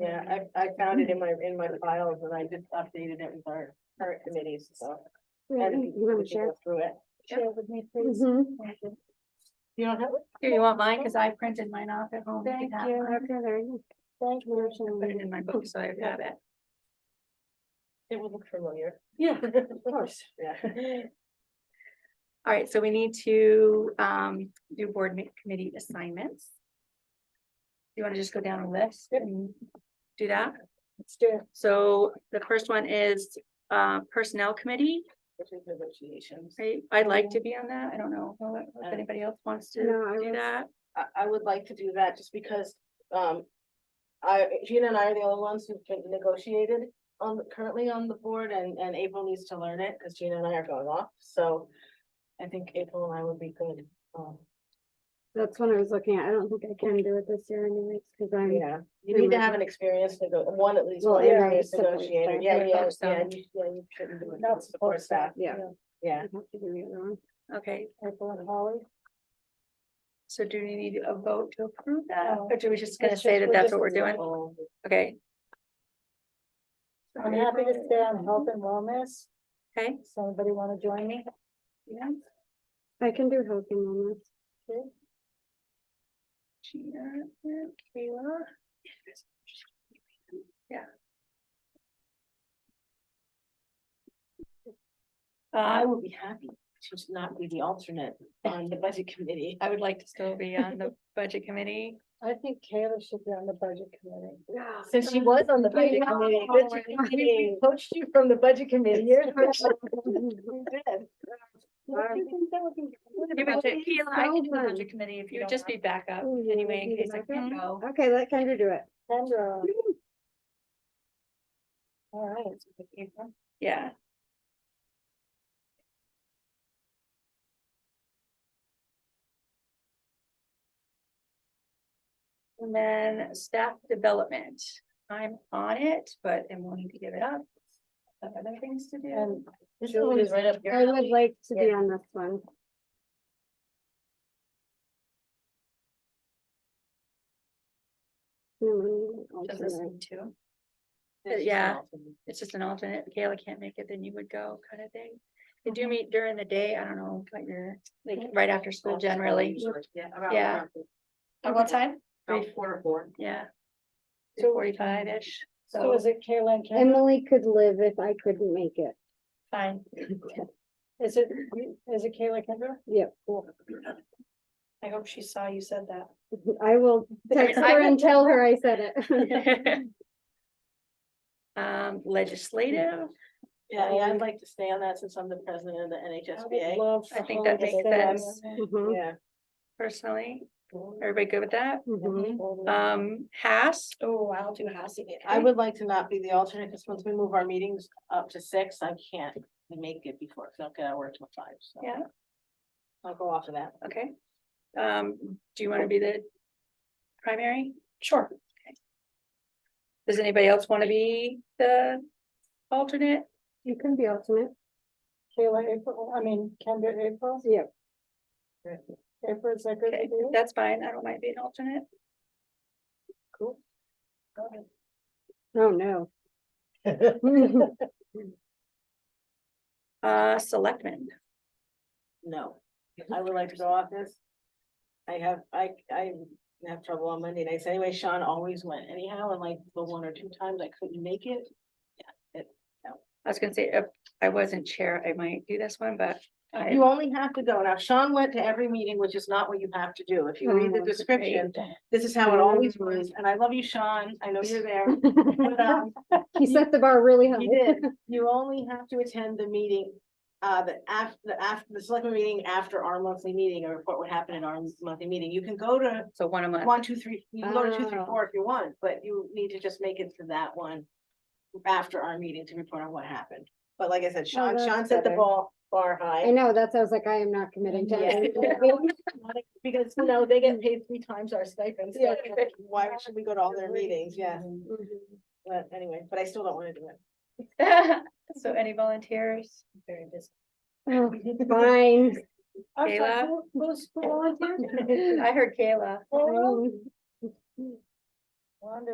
Yeah, I, I found it in my, in my files and I just updated it with our current committees, so. and You we want to can share? go Through it. Share with me, please. Mhm. You don't have Mm-hmm. Here, you want mine? Cause I printed mine off at home. Thank you. Okay, there you go. I put it in my book, so I've got it. it? It will look familiar. Yeah. Of course, yeah. All right, so we need to um do board ma- committee assignments. You want to just go down a list and do that? Let's do it. So the first one is uh Personnel Committee, Which is negotiations. right? I'd like to be on that. I don't know if Uh, anybody else wants to No, I do was- that. I, I would like to do that just because, um, I, Gina and I are the only ones who've been negotiated on, the- currently on the board and, and April needs to learn it because Gina and I are going off, so I think April and I would be good. um, That's what I was looking at. I don't think I can do it this year anyways, because I'm, Yeah, Um, you need to have an experience to go, one at least, one Well, yeah, experienced support negotiator, staff. yeah, yeah, Support staff. yeah, you- yeah, you shouldn't do it. Not support staff. yeah. I Yeah, have to do the other one. Okay, April and Holly. so do we need a vote to approve that? No. Or do we just gonna It's say just- that we're that's just what we're doing? example. Okay. I'm happy to stay on health and wellness. Okay, Does anybody want to join me? yeah, I can do health and wellness. Gina, and Kayla. Yeah. I Uh, would be happy to just not be the alternate on the budget committee. I would like to still be on the budget committee. I think Kayla should be on the budget committee. Yeah. Since she was on the budget Yeah. committee, budget committee poached you from the budget committee. You're- We did. Give it to Kayla, I can do the fun. budget committee if you You would don't just be backup anyway, in case I can't go. Okay, let Kendra do it. Kendra. All right. Yeah, and then staff development. I'm on it, but am willing to give it up. I have Other things to do. And This one is right up your I would alley. like to be Yeah. on this one. No, I'm an Just alternate. listen to. This is yeah. an alternate. It's just an alternate. if Kayla can't make it, then you would go kind of thing. They Mm-hmm. do meet during the day. I don't know, like you're, like right after school generally. Yeah. about- Yeah. about- At what time? About four to four. Yeah. Two forty-five-ish, so so is it Kayla and Kendra? Emily could live if I couldn't make it. fine. Is it, is it Kayla Kendra? Yep. I hope she saw you said that. I will text her and tell her I said it. Um, legislative, Yeah, yeah, I'd like to stay on that since I'm the president of the NHSBA. I think that makes sense Mm-hmm. Mhm, Yeah. personally. Everybody good with that? Mm-hmm. mhm. Uh, Um, Has, oh, I'll do Has again. I would like to not be the alternate, because once we move our meetings up to six, I can't make it before, because I've got to work till five, so. Yeah. I'll go off of that. Okay. Um, do you want to be the primary? Sure. Okay. Does anybody else want to be the alternate? You can be alternate. Kayla April, I mean, Kendra April, Yep. April is that good Okay, with you? that's fine. I don't mind being alternate. Cool. Oh, no. Uh, selectmen. No, I would like to go off this. I have, I, I have trouble on Monday nights anyway. Sean always went anyhow, and like the one or two times I couldn't make it. I was gonna say, if I wasn't chair, I might do this one, but I, You only have to go. Now Sean went to every meeting, which is not what you have to do. If you read the Mhm. description, this is how it always was. And I love you, Sean. I know you're there. But, um, He set the bar really high. You did. You only have to attend the meeting, uh, the after, the after, the selectmen meeting after our monthly meeting or report what happened in our monthly meeting. You can go to so one a month. one, two, three, you can go to two, three, Oh. four if you want, but you need to just make it to that one after our meeting to report on what happened. But like I said, Sean, that's Sean set the better. ball bar I high. know, that's, I was like, I am not committing to Yeah. it. Because, you know, they get paid three times our stipend, so Yeah. why should we go to all their meetings? Yeah, Mhm. but anyway, but I still don't wanna do it. So any volunteers? Very busy. Oh, Fine. I'm sorry, Kayla? who- Who's who volunteered? I heard Kayla. Kayla? Fine. Wanda.